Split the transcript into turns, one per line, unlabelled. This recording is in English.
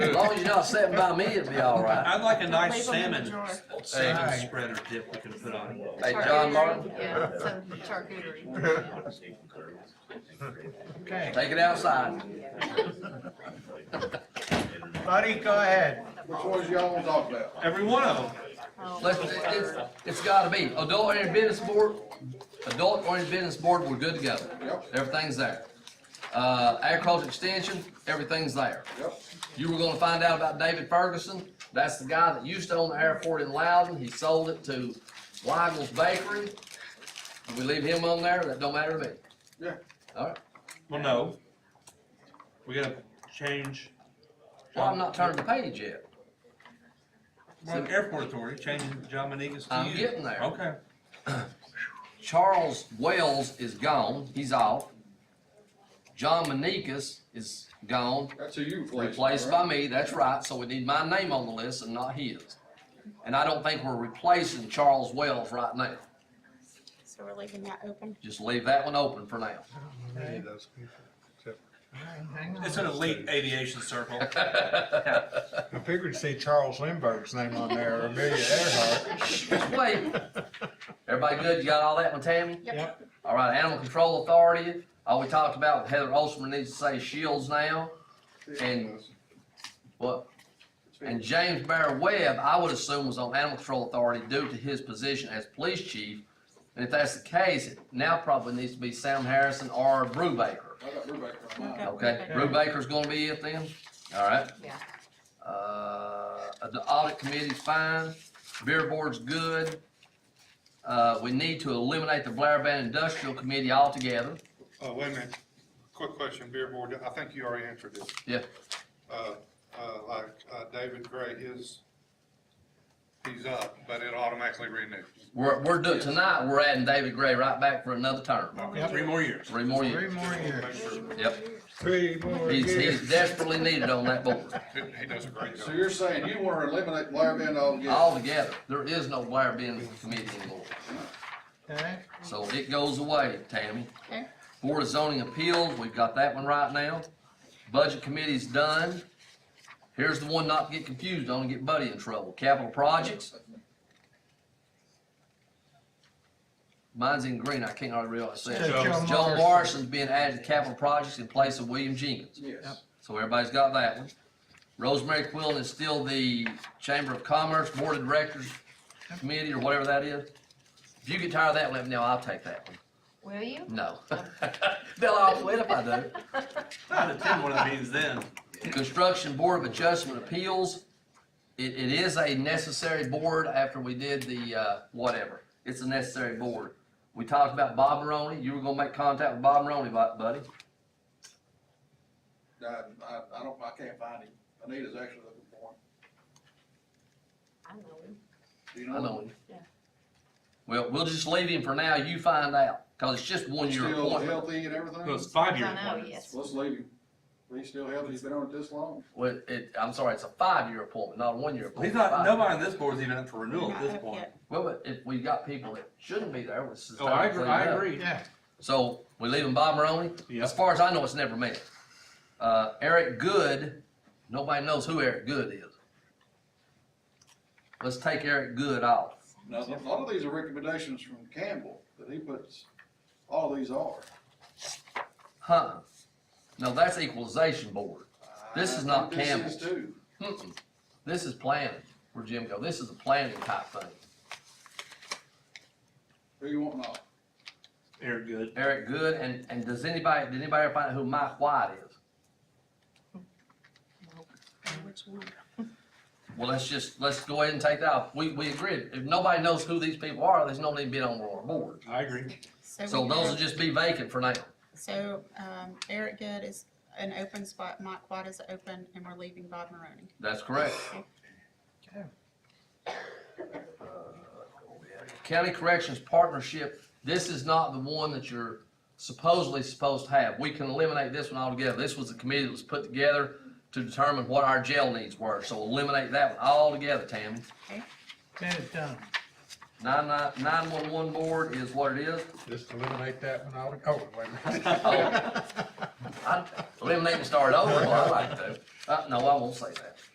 As long as you're not sitting by me, it'll be all right.
I'd like a nice
Leave 'em in the
salmon,
drawer.
salmon
Hey.
spread or dip we can put on. it.
Hey,
Charcuterie,
John Martin,
Yeah, some charcuterie.
Okay,
take it outside.
buddy, go ahead.
Which ones y'all wanna talk about?
Every one of them.
Let's, it's, it's gotta be, adult oriented business board, adult oriented business board, we're good to go.
Yep.
Everything's there. Uh, agriculture extension, everything's there.
Yep,
You were gonna find out about David Ferguson, that's the guy that used to own the airport in Loudon, he sold it to Weigel's Bakery. If we leave him on there, that don't matter to me.
yeah.
Alright,
Well, no. We gotta change.
well, I'm not turning the page yet.
Well, Airport Authority, changing John Manigas to you.
I'm getting there.
Okay.
Charles Wells is gone, he's off. John Manikas is gone,
That's who you replaced.
replaced by
right?
me, that's right, so we need my name on the list and not his. And I don't think we're replacing Charles Wells right now,
So we're leaving that open.
just leave that one open for now.
Okay, all right, hang on.
It's an elite aviation circle.
I figured to see Charles Lindbergh's name on there, or Amelia Earhart.
Just wait. Everybody good, you got all that one, Tammy?
Yep.
All right, Animal Control Authority, all we talked about, Heather Olsman needs to say Shields now. And- What, and James Bear Webb, I would assume was on Animal Control Authority due to his position as police chief. And if that's the case, it now probably needs to be Sam Harrison or Brubaker.
I got Brubaker on mine.
Okay.
Okay, Brubaker's gonna be it then, all right?
Yeah.
Uh, the audit committee's fine, beer board's good. Uh, we need to eliminate the Blair Van Industrial Committee altogether.
Uh, wait a minute, quick question, Beer Board, I think you already answered this.
Yeah.
Uh, uh, like, uh, David Gray, his, he's up, but it automatically renews.
We're, we're doing, tonight, we're adding David Gray right back for another term,
Three more years.
three more
Three
years.
more
Make
years,
sure,
Yep,
three more
he's, he's
years.
desperately needed on that board,
he, he does a great
So
job.
you're saying you wanna eliminate Blair Van altogether?
altogether. There is no Blair Van Committee anymore,
Okay,
so it goes away, Tammy.
Okay.
Board of Zoning Appeals, we've got that one right now. Budget Committee's done. Here's the one not to get confused on and get Buddy in trouble. Capital Projects. Mine's in green, I can't hardly realize
So Joe
that. Joe
Morrison.
Morrison's being added to Capital Projects in place of William Jenkins.
Yes.
So everybody's got that one. Rosemary Quillen is still the Chamber of Commerce Board of Directors Committee or whatever that is. If you get tired of that, let me know, I'll take that one.
Will you?
No. They'll all quit if I do.
I'd attend one of the meetings then.
Construction Board of Adjustment Appeals, it, it is a necessary board after we did the, uh, whatever. It's a necessary board. We talked about Bob Maroney, you were gonna make contact with Bob Maroney, bu- buddy.
I, I, I don't, I can't find him. Anita's actually looking for him.
I know.
Do you
I know
know?
him.
Yeah.
Well, we'll just leave him for now, you find out, cause it's just one
He's
year
Still
appointment.
healthy and everything?
No, it's
Let's
five years.
I know, oh, yes.
leave him. He's still healthy. He's been on it this long.
Well, it, I'm sorry, it's a five-year appointment, not a one-year
He's
appointment.
not,
Five.
nobody on this board's even up for renewal at
Not
this
up
point.
yet.
Well, but if we've got people that shouldn't be there, it's.
Oh, I agree, I agree.
yeah,
So we leaving Bob Maroney?
Yeah.
As far as I know, it's never met. Uh, Eric Good, nobody knows who Eric Good is. Let's take Eric Good off.
Now, a lot of these are recommendations from Campbell that he puts, all these are.
Huh? No, that's equalization board. This is not
This
Campbell.
is too.
Mm-mm. This is planning, where Jim go. This is a planning type thing.
Who you want off?
Air good.
Eric Good, and, and does anybody, did anybody ever find out who Mike White is?
Which one?
Well, let's just, let's go ahead and take that off. We, we agreed. If nobody knows who these people are, there's no need to be on our board.
I agree.
we
So those
have-
will just be vacant for now.
So, um, Eric Good is an open spot, Mike White is open, and we're leaving Bob Maroney.
That's correct.
Okay.
County Corrections Partnership, this is not the one that you're supposedly supposed to have. We can eliminate this one altogether. This was a committee that was put together to determine what our jail needs were, so eliminate that one altogether, Tammy.
then it's done.
Nine nine, nine one one board is what it is.
Just eliminate that one out, oh, wait a minute.
Oh. I'd Eliminate and start over, well, I like to. Uh, no, I won't say that.